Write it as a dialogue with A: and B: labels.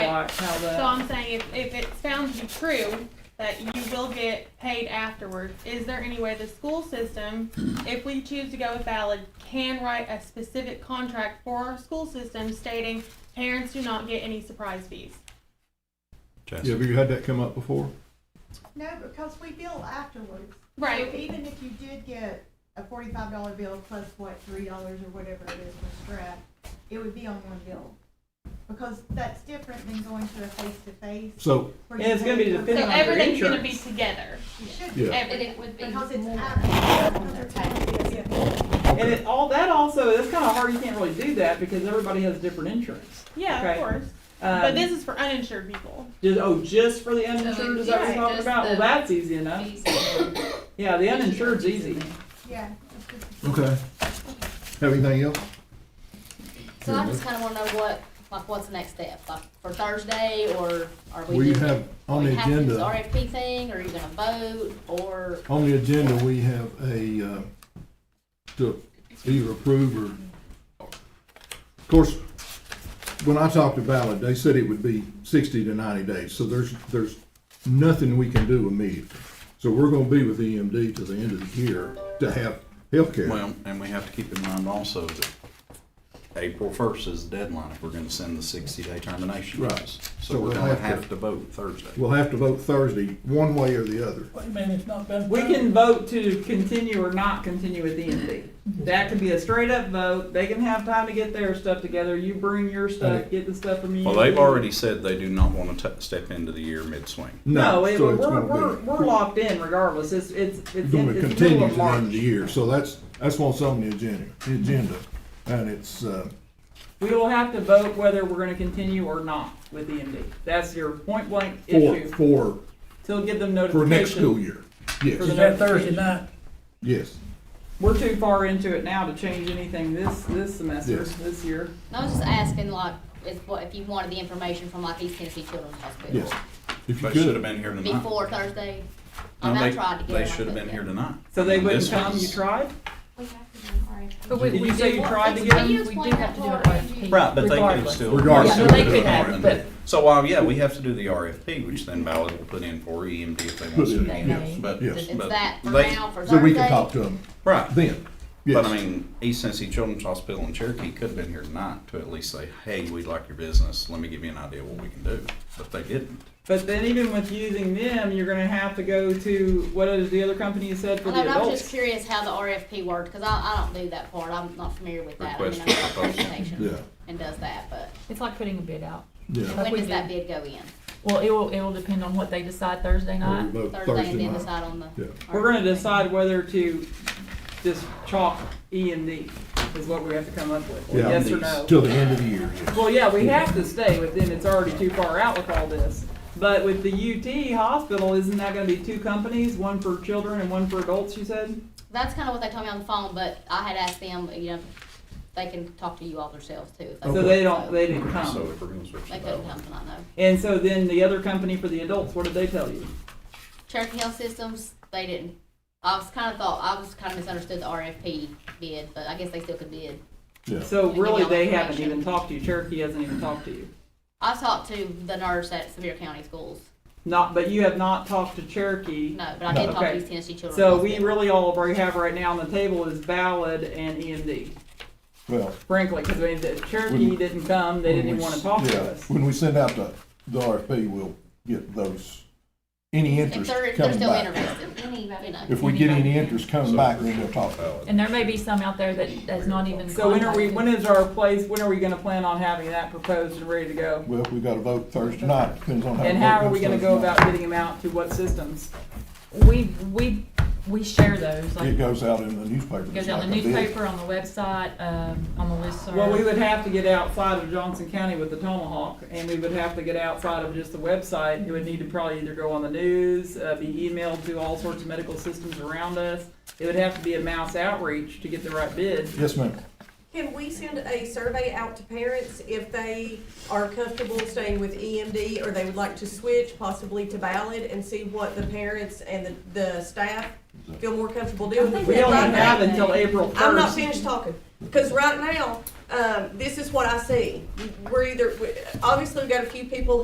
A: Right, how
B: So
A: that,
B: I'm saying if, if it's found to be true, that you will get paid afterwards, is there any way the school system, if we choose to go with valid, can write a specific contract for our school system stating parents do not get any surprise fees?
C: Yeah, but you had that come up before?
D: No, because we bill afterwards.
B: Right.
D: So even if you did get a forty-five dollar bill plus what, three dollars or whatever it is for strap, it would be on one bill. Because that's different than going to a face-to-face.
C: So,
D: where
A: And
D: you
A: it's gonna
D: pay
A: be
D: for-
B: So
A: dependent Depending on your
B: everything's gonna be
A: insurance.
B: together,
D: It should be,
C: yeah,
E: And
B: everything.
E: it would be more
D: because it's
E: on their taxes.
D: after.
A: and it, all that also, that's kinda hard, you can't really do that because everybody has different insurance.
B: Yeah,
A: Okay.
B: of course, but
A: Um,
B: this is for uninsured people.
A: just, oh, just for the uninsured, is that what
E: it's
A: you're talking
E: just
A: about? Well,
E: the
A: that's easy enough. Yeah, the uninsured's easy.
D: Yeah. it's just-
C: okay. Everything else?
E: So I just kinda wanna know what, like, what's the next step, like, for Thursday, or are we?
C: Well, you
E: just-
C: have, on
E: we
C: the
E: have to do this
C: agenda,
E: RFP thing, or are you gonna vote, or?
C: on the agenda, we have a, uh, to either approve or, of course, when I talked to Ballard, they said it would be sixty to ninety days, so there's, there's nothing we can do immediately. So we're gonna be with EMD to the end of the year to have healthcare.
F: Well, and we have to keep in mind also that April first is the deadline if we're gonna send the sixty-day termination.
C: Right.
F: notice.
C: So
F: So we're
C: we'll
F: gonna
C: have to-
F: have to vote Thursday.
C: We'll have to vote Thursday, one way or the other.
G: Wait a minute, it's not been.
A: We
B: Um,
A: can vote to continue or not continue with EMD. That could be a straight up vote. They can have time to get their stuff together. You bring your stuff, get the stuff from you.
F: Well, they've already said they do not wanna t- step into the year mid-swing.
A: No, it-
C: so
A: we're,
C: it's gonna
A: we're,
C: be-
A: we're, locked in regardless. It's, it's, it's,
C: It's
A: it's
C: gonna
A: middle
C: continue
A: of
C: to the end of the
A: March.
C: year, so that's, that's what's on the agenda, the agenda. And it's, uh,
A: We will have to vote whether we're gonna continue or not with EMD. That's your point blank
C: for,
A: issue.
C: for,
A: Till give them
C: for
A: notification.
C: next school year.
A: For
G: Is
A: the-
C: Yes,
G: that Thursday night?
C: yes.
A: We're too far into it now to change anything this, this semester,
C: Yes.
A: this year.
E: I was just asking, like, if, what, if you wanted the information from like East Tennessee Children's Hospital?
C: Yes. If you
F: They should have
C: could,
F: been here tonight.
E: Before Thursday? I
F: No,
E: mean, I
F: they-
E: tried to get
F: They
E: it, I
F: should have
E: couldn't
F: been here tonight.
A: So they
F: And
A: wouldn't
F: this
A: come, you
F: was-
A: tried?
E: We have to do an RFP.
A: Did you say you tried to get
E: Can
A: them?
E: you explain that part?
F: Right, but they could
A: Regardless.
F: still.
C: Regardless.
F: still
C: Yeah, they
F: do
C: could
F: it.
C: have,
G: but-
F: So, um, yeah, we have to do the RFP, which then Ballard will put in for EMD if they want
C: Put
F: to.
C: it in,
E: yes.
F: But,
C: Yes.
E: It's
F: but
E: that for
F: they-
E: now, for Thursday?
C: so we can talk to them
F: Right,
C: then.
F: But I
C: Yes.
F: mean, East Tennessee Children's Hospital in Cherokee could have been here tonight to at least say, hey, we like your business. Let me give you an idea what we can do. But they didn't.
A: But then even with using them, you're gonna have to go to, what is the other company you said for
E: I
A: the
E: know, but I was just
A: adults?
E: curious how the RFP worked, because I, I don't do that part, I'm not familiar with that. I mean,
F: Request
E: I know
F: for
E: about
F: proposal.
C: Yeah,
E: presentation and does that, but
H: It's like putting a bid out.
C: yeah.
E: when
H: we
E: does that
H: do.
E: bid go in?
H: Well, it will, it will depend on what they decide Thursday
C: We'll
H: night.
C: vote
E: Thursday and
C: Thursday
E: then
C: night.
E: decide on the.
C: Yeah.
A: We're gonna
E: RFP.
A: decide whether to just chalk E and D is what we have to come up with, or
C: Yeah.
A: yes or no.
C: Till the end of the year, yes.
A: Well, yeah, we have to stay with them, it's already too far out with all this. But with the UT hospital, isn't that gonna be two companies, one for children and one for adults, you said?
E: That's kind of what they told me on the phone, but I had asked them, you know, they can talk to you all themselves too. if they
A: So
E: want,
A: they don't, they didn't
F: So
A: come.
F: if we're going to switch
E: They
F: to
E: couldn't
F: that,
E: come tonight, no.
A: And so then the other company for the adults, what did they tell you?
E: Cherokee Health Systems, they didn't, I was kind of thought, I was kind of misunderstood the RFP bid, but I guess they still could bid.
C: Yeah.
A: So
E: Give me
A: really,
E: all
A: they
E: the
A: haven't even
E: information.
A: talked to you, Cherokee hasn't even talked to you.
E: I talked to the nurse at Sevier County Schools,
A: Not, but you have not talked to Cherokee.
E: no, but I did
A: No.
E: talk to
A: Okay.
E: East Tennessee Children's
A: So we
E: Hospital.
A: really all we have right now on the table is Ballad and EMD,
C: Well.
A: frankly, because Cherokee
C: When-
A: didn't come, they
C: when
A: didn't even
C: we
A: want to
C: s-
A: talk
C: yeah,
A: to us.
C: When we send out the, the RFP, we'll get those, any
E: If
C: interest
E: they're, if they're
C: coming
E: still
C: back.
E: interested, you know.
C: If we get any interest coming back, then we'll talk about it.
H: And there may be some out there that, that's not even.
A: So when are we,
H: contacted.
A: when is our place, when are we going to plan on having that proposed and ready to go?
C: Well, we gotta vote Thursday night, depends on how.
A: And
C: the
A: how
C: vote
A: are we
C: goes
A: going to go
C: Thursday
A: about
C: night.
A: getting them out to what systems?
H: We, we, we share those, like,
C: It goes out in the newspaper.
H: goes out in the
C: It's like a bid.
H: newspaper, on the website, um, on the listserv.
A: Well, we would have to get outside of Johnson County with the Tomahawk, and we would have to get outside of just the website. It would need to probably either go on the news, uh, be emailed to all sorts of medical systems around us. It would have to be a mass outreach to get the right bid.
C: Yes, ma'am.
I: Can we send a survey out to parents if they are comfortable staying with EMD or they would like to switch possibly to Ballad and see what the parents and the, the staff feel more comfortable doing?
A: We only
I: Right now-
A: have until April first.
I: I'm not finished talking, because right now, um, this is what I see. We're either, we- obviously, we've got a few people